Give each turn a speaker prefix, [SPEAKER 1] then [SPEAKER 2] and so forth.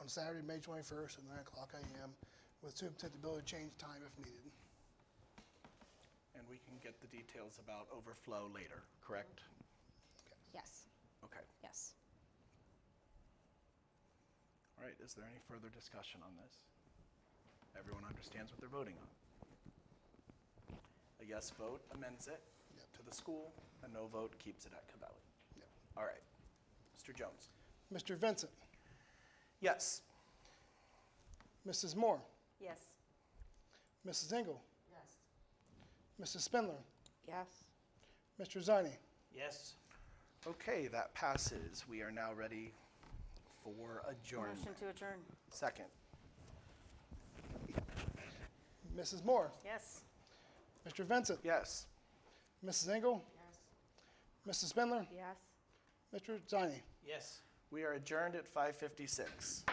[SPEAKER 1] on Saturday, May 21st at 9 o'clock AM with superintendent to change time if needed.
[SPEAKER 2] And we can get the details about overflow later, correct?
[SPEAKER 3] Yes,
[SPEAKER 2] Okay.
[SPEAKER 3] yes.
[SPEAKER 2] All right, is there any further discussion on this? Everyone understands what they're voting on? A yes vote amends it
[SPEAKER 1] Yep.
[SPEAKER 2] to the school, a no vote keeps it at Cavelli.
[SPEAKER 1] Yep.
[SPEAKER 2] All right. Mr. Jones?
[SPEAKER 1] Mr. Vincent,
[SPEAKER 2] Yes.
[SPEAKER 1] Mrs. Moore,
[SPEAKER 4] Yes.
[SPEAKER 1] Mrs. Engel,
[SPEAKER 4] Yes.
[SPEAKER 1] Mrs. Spindler,
[SPEAKER 4] Yes.
[SPEAKER 1] Mr. Zani.
[SPEAKER 2] Yes. Okay, that passes. We are now ready for
[SPEAKER 4] Motion
[SPEAKER 2] adjournment.
[SPEAKER 4] to adjourn.
[SPEAKER 2] Second.
[SPEAKER 1] Mrs. Moore,
[SPEAKER 4] Yes.
[SPEAKER 1] Mr. Vincent,
[SPEAKER 2] Yes.
[SPEAKER 1] Mrs. Engel,
[SPEAKER 4] Yes.
[SPEAKER 1] Mrs. Spindler,
[SPEAKER 4] Yes.
[SPEAKER 1] Mr. Zani.
[SPEAKER 2] Yes. We are adjourned at 5:56.